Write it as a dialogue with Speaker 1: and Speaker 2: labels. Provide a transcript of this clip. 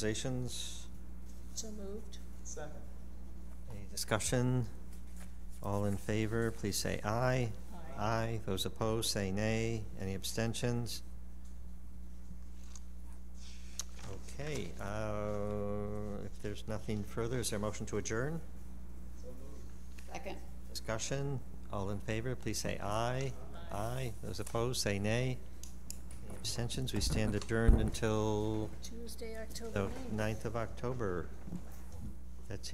Speaker 1: Organizations,
Speaker 2: So moved.
Speaker 3: Second.
Speaker 1: any discussion? All in favor, please say aye. Aye. Those opposed, say nay. Any abstentions? Okay, uh, if there's nothing further, is there a motion to adjourn?
Speaker 3: So moved.
Speaker 2: Second.
Speaker 1: Discussion, all in favor, please say aye. Aye. Those opposed, say nay. Any abstentions? We stand adjourned until
Speaker 2: Tuesday, October
Speaker 1: the
Speaker 2: ninth.
Speaker 1: 9th of October.